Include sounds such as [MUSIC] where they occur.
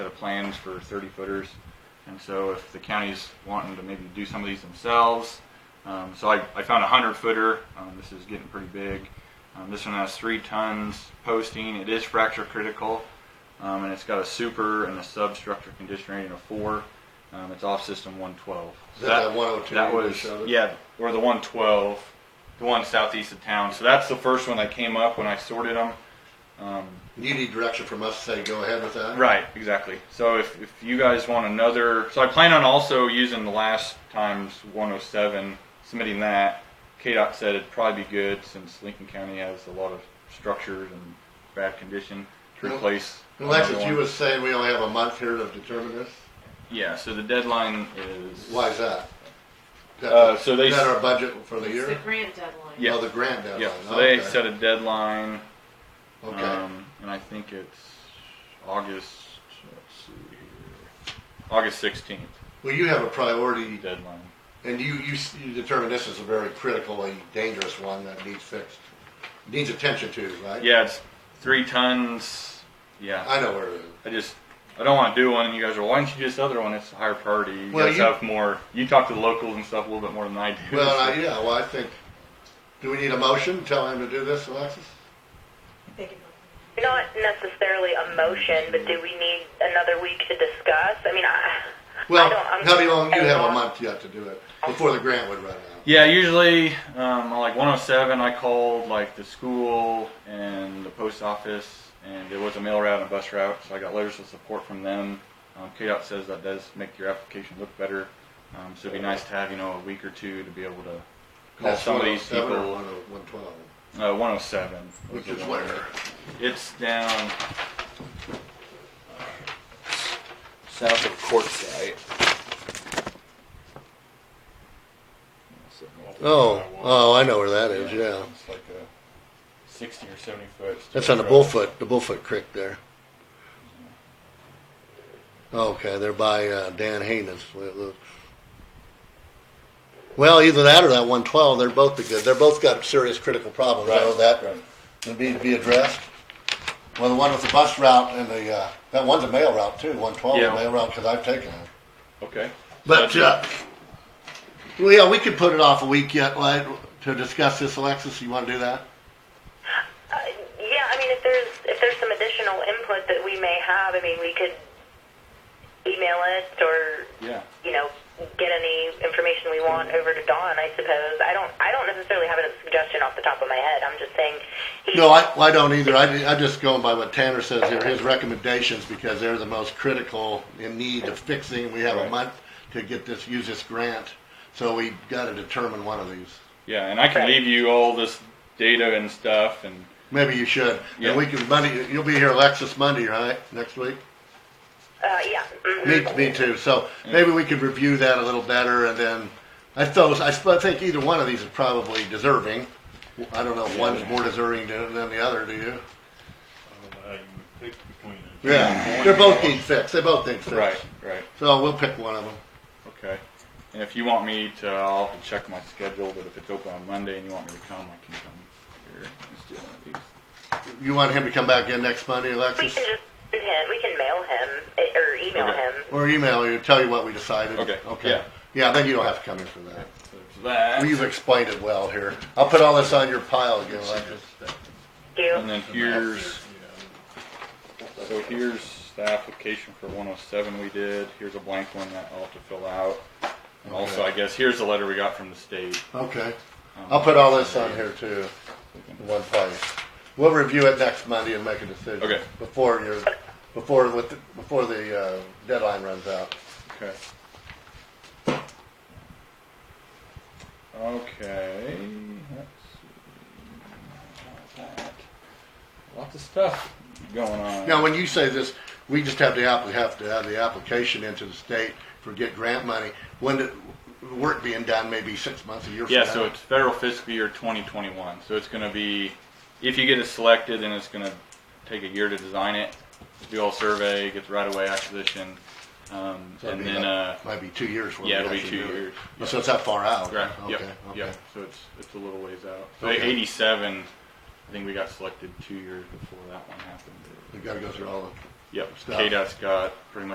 plans for thirty footers. And so if the county's wanting to maybe do some of these themselves, um, so I, I found a hundred footer. Um, this is getting pretty big. Um, this one has three tons posting. It is fracture critical, um, and it's got a super and a substructure condition rating of four. Um, it's off system 112. Is that that 102 That you was showed? yeah, or the 112, the one southeast of town. So that's the first one that came up when I sorted them. Um, You need direction from us to say go ahead with that? Right, exactly. So if, if you guys want another, so I plan on also using the last times 107, submitting that. KDOT said it'd probably be good since Lincoln County has a lot of structures and bad condition to Well, replace. Alexis, another you one. was saying we only have a month here to determine this? Yeah, so the deadline is. Why is that? Is that- Uh, so they Is that s- our budget for the It's the year? grant deadline. Yeah. Oh, the grant deadline. Yeah, so they Okay. set a deadline, Okay. um, and I think it's August, let's see here, August 16th Well, you have a priority deadline. And you, you, s- you determine this is a very critically dangerous one that needs fixed, needs attention to, right? Yeah, it's three tons, yeah. I know where it is. I just I don't want to do one, and you guys are. Why don't you do this other one? It's a higher priority. You Well, guys you- have more. You talk to the locals and stuff a little bit more than I do. Well, so- I, yeah, well, I think, do we need a motion telling him to do this, Alexis? They can- Not necessarily a motion, but do we need another week to discuss? I mean, I. Well, I don't, I'm, how long, you I'm have a not- month yet to do it, before the grant would run out. [LAUGHS] yeah, usually um, like 107, I called like the school and the post office, and there was a mail route and a bus route, so I got letters of support from them. Um, KDOT says that does make your application look better, um, so it'd be nice to have you know a week or two to be able to call That's some of these 107 or people. 112, Uh, 107, was which the is one. where, It's down. South of Quartzsite. oh, oh, I know where that is, yeah. It's like a 60 or 70 foot. That's on the Bullfoot, the Bullfoot Creek there. Okay, they're by uh, Dan Haynes. Well, either that or that 112. They're both the good. They're both got serious critical problems. I know that would need to be addressed. Well, the one with the bus route and the uh, that one's a mail route too. 112 is a Yeah. mail route because I've taken it. Okay. But uh, well, yeah, we could put it off a week yet like, to discuss this. Alexis, you want to do that? Uh, yeah, I mean, if there's if there's some additional input that we may have, I mean, we could email it or Yeah. you know get any information we want over to Don. I suppose I don't I don't necessarily have a suggestion off the top of my head. I'm just saying. He, No, I, I don't either. I, I just go by what Tanner says here, his recommendations, because they're the most critical in need of fixing. We have a Right. month to get this, use this grant, so we gotta determine one of these. Yeah, and I can leave you all this data and stuff, and Maybe you should. Yeah. And we can, Monday, you'll be here Alexis Monday, right, next week? Uh, yeah. mhm. Me, me too. So maybe we could review that a little better and then, I suppose, I sp- I think either one of these is probably deserving. I don't know if one's more deserving than than the other, do you? I can pick between them. Yeah, they're both need fixed. They both need fixed. right, right, So we'll pick one of them. okay. And if you want me to, I'll have to check my schedule. But if it's open on Monday and you want me to come, I can come here. Let's do one of these. You want him to come back in next Monday, We Alexis? can just send him. We can mail him eh, or email Okay. him. Or email you, tell you what we decided? Okay, Okay. yeah. Yeah, then you don't have to come in for that. So there's that. We've explained it well here. I'll put all this on your pile again, Alexis. Do you? And then here's so here's the application for 107 we did. Here's a blank one that I'll have to fill out. And also, I Okay. guess here's the letter we got from the state. Okay. Um, I'll put all this on here too, in one place. We'll review it next Monday and make a decision. Okay. Before your, before, with, the- before the uh, deadline runs out. Okay. Okay. Let's see. How's that? Lots of stuff going on. Now, when you say this, we just have to app, have to have the application into the state for get grant money. When the the work being done, maybe six months, a year from now. yeah, so it's federal fiscal year 2021. So it's going to be, if you get it selected, then it's going to take a year to design it, do all survey, get the right of way acquisition, um, So it'd and be then. like- Uh, Might be two years. when yeah, we it'll be actually two do it. years. Oh, So it's that far out? Right. Okay, uh, Yep. okay. Yep. So it's it's a little ways out. So Okay. 87, I think we got selected two years before that one happened. We gotta go through all the Yep, Scott. KDOT's got pretty much